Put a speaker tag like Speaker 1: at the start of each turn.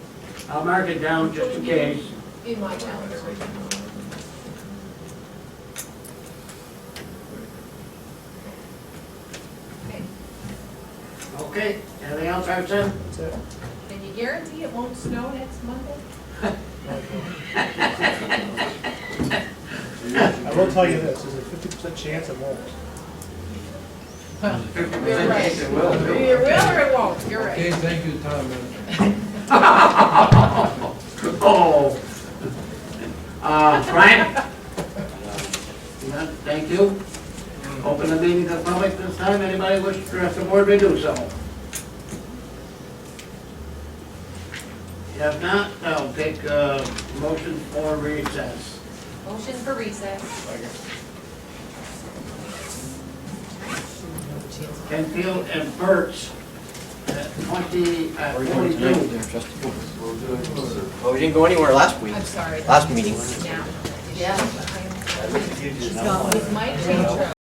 Speaker 1: I'll mark it down just in case.
Speaker 2: in my calendar. Okay,
Speaker 1: Okay, anything else I've said?
Speaker 2: can you guarantee it won't snow next Monday?
Speaker 3: I will tell you this, there's a fifty percent chance it won't.
Speaker 2: You're right.
Speaker 1: It will
Speaker 2: You
Speaker 1: be.
Speaker 2: will or it won't, you're right.
Speaker 4: Okay, thank you, Tom.
Speaker 1: Oh. Uh, Brian? Yeah, Thank you. Open the meeting to the public this time. Anybody wish to address the board, may do so. If not, I'll take a motion for recess.
Speaker 2: Motion for recess.
Speaker 1: Canfield and Burt's at twenty, at forty-two.
Speaker 5: Well, we didn't go anywhere last week,
Speaker 2: I'm sorry.
Speaker 5: last meeting.
Speaker 2: Now. Yeah. With my intro.